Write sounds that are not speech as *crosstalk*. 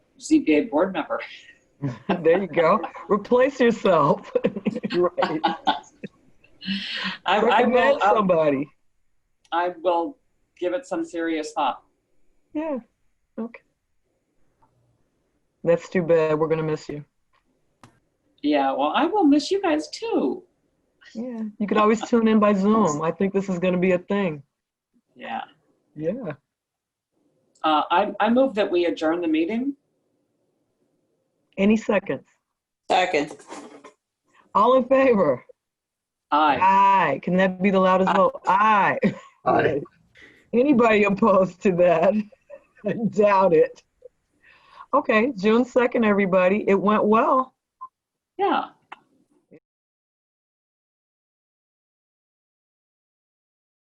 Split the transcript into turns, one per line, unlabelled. ZBA board member.
*laughs* There you go. Replace yourself. *laughs* Right.
I, uh, I will,
Recommend
I'll-
somebody.
I will give it some serious thought.
Yeah, okay. That's too bad. We're gonna miss you.
Yeah, well, I will miss you guys too.
Yeah, you could always tune in by Zoom. I think this is gonna be a thing.
Yeah.
Yeah.
Uh, I, I move that we adjourn the meeting.
Any seconds.
Second.
All in favor?
Aye.
Aye. Can that be the loudest vote? Aye.
Aye.
*laughs* Anybody opposed to that? *laughs* I doubt it. Okay, June 2nd, everybody. It went well.
Yeah.